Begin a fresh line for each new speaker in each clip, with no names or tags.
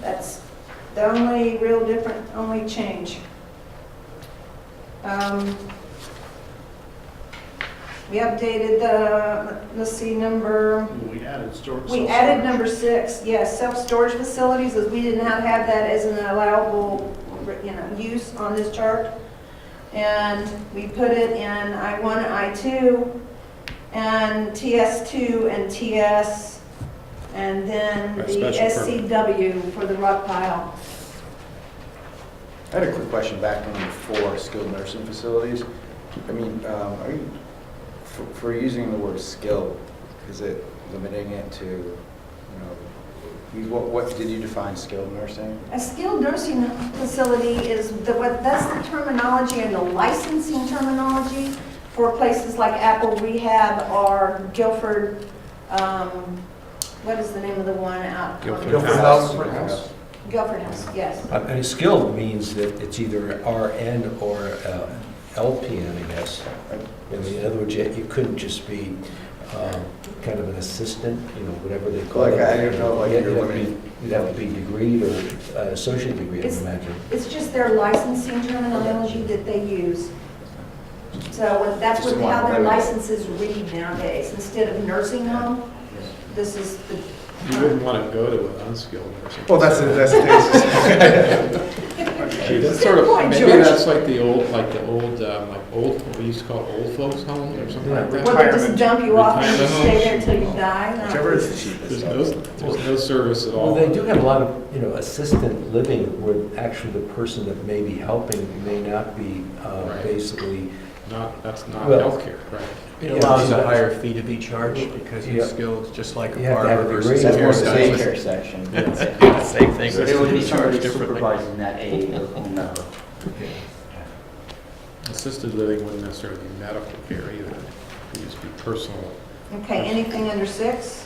That's the only real different, only change. Um, We updated the, let's see, number,
We added storage.
we added number six, yes, self-storage facilities, as we did not have that as an allowable, you know, use on this chart. And we put it in I one, I two, and TS two and TS, and then
By
the
special permit.
SCW for the rock pile.
I had a quick question back on the four skilled nursing facilities. I mean, um, are you, for, for using the word skilled, is it limiting it to, you know, you- what, what did you define skilled nursing?
A skilled nursing facility is, the what that's the terminology and the licensing terminology for places like Apple Rehab or Guilford, um, what is the name of the one out?
Guilford
Guilford
House.
House. House.
Guilford House, yes.
Uh, And skilled means that it's either RN or uh, LPN, I guess. I mean, In other words, you you couldn't just be um, kind of an assistant, you know, whatever they call it.
Like, I don't know, like
Yeah,
you're
you'd have to be-
limiting-
You'd have to be degreed or uh, associate degree, I
It's-
imagine.
It's just their licensing terminology that they use. So that's what, how their licenses read nowadays. Instead of nursing home, this is the.
You wouldn't want to go to an unskilled nursing.
Well, that's, that's, that's,
Gee, That's
Good
sort of,
point,
maybe
George.
that's like the old, like the old, um, like old, what we used to call old folks home or something like
Well, they
that.
just dump you off and you
Retirement
stay
homes.
there till you die? No.
whichever is the
There's
cheapest.
no, there's no service at all.
Well, they do have a lot of, you know, assistant living where actually the person that may be helping may not be uh,
Right.
basically,
Not, that's not
Well-
healthcare, right?
It
Yeah.
allows a higher fee to be charged because
Yeah.
it's skilled, just like a
You have to have a
barber versus
degree.
That's
a
more the
hairstylist.
daycare section.
Yeah, Same thing.
So they would be
charged
somebody
differently.
supervising that aide or whomever.
Assisted living wouldn't necessarily be medical care either. It would just be personal.
Okay, anything under six?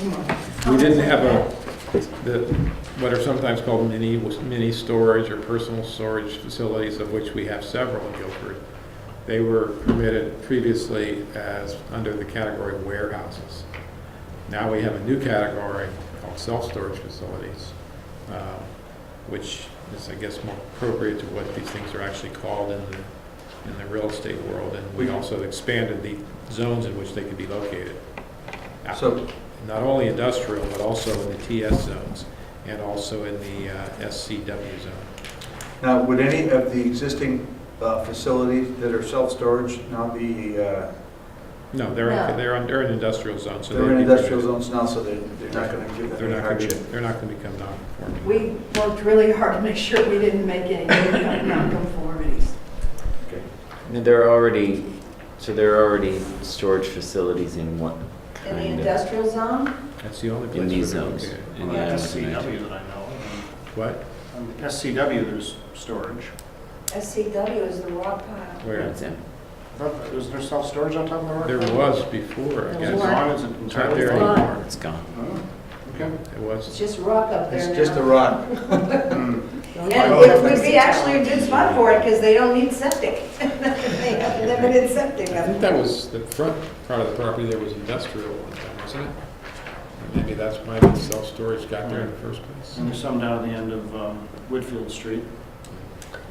Any more
We didn't have
comments
a, the, what are sometimes called mini, mini storage or personal storage facilities, of which we have several in Guilford. They were permitted previously as, under the category warehouses. Now we have a new category called self-storage facilities, um, which is, I guess, more appropriate to what these things are actually called in the, in the real estate world. And we also expanded the zones in which they could be located.
So-
Not only industrial, but also in the TS zones and also in the uh, SCW zone.
Now, would any of the existing uh, facilities that are self-storage now be, uh,
No, they're,
No.
they're in- they're in industrial zone, so.
they're
they'd
in
be-
industrial zones now, so they're they're not going to give
They're
them any
not gonna be,
hardship?
they're not gonna become
there?
non-conforming.
We worked really hard to make sure we didn't make any non-conformities.
There are already, so there are already storage facilities in what
In the
kind of?
industrial zone,
That's the only place.
In these
where they're
zones.
located.
In
On the
the
SCW that I know.
What?
On the SCW, there's storage.
SCW is the rock pile.
Where?
That's it.
But Is there self-storage on top of the rock?
There was before,
There
I guess.
was.
Gone, is it
It's not
entirely
there
gone?
anymore.
It's gone.
Oh, Okay.
It
It's
was.
just rock up there
It's
now.
just a rock.
Yeah, it would be actually a good spot for it because they don't need septic. They have limited septic
I
up
think
there.
that was the front part of the property, there was industrial one time, wasn't it? And Maybe that's why the self-storage got there in the first place.
And there's some down at the end of um, Woodfield Street.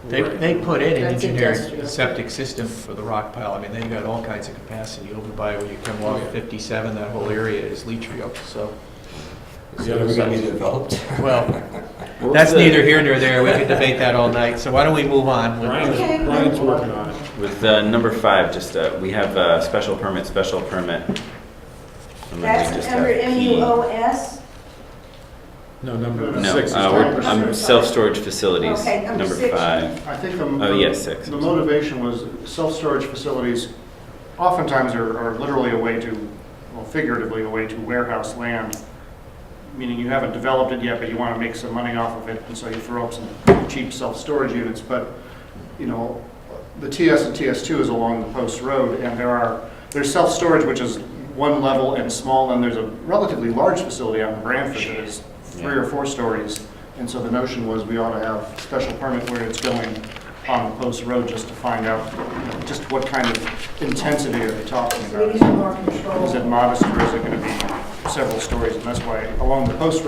They,
Right.
they put in an
That's
engineered
industrial.
septic system for the rock pile. I mean, they've got all kinds of capacity over by where you come
Oh, yeah.
along 57, that whole area is leachfield, so.
The other
gonna be
side-
developed.
Well, that's neither here nor there. We could debate that all night. So why don't we move on? with-
Brian's,
Okay.
Brian's working on it.
With uh, number five, just, uh, we have uh, special permit, special permit. And then we
That's
just
under
have P.
MUOS.
No, number
No,
No,
six is
uh, we're, I'm self-storage facilities,
Okay, number
number
six.
five.
I think the.
Oh, yes, six.
The motivation was self-storage facilities oftentimes are are literally a way to, well figuratively, a way to warehouse land, meaning you haven't developed it yet, but you want to make some money off of it, and so you throw up some cheap self-storage units. But, you know, the TS and TS2 is along the post road, and there are, there's self-storage, which is one level and small, and there's a relatively large facility out in Branford that is three or four stories. And so the notion was we ought to have special permit where it's going on the post road just to find out, you know, just what kind of intensity are they talking
So we need
about?
more control.
Is it modest, or is it going to be several stories? And that's why along the post road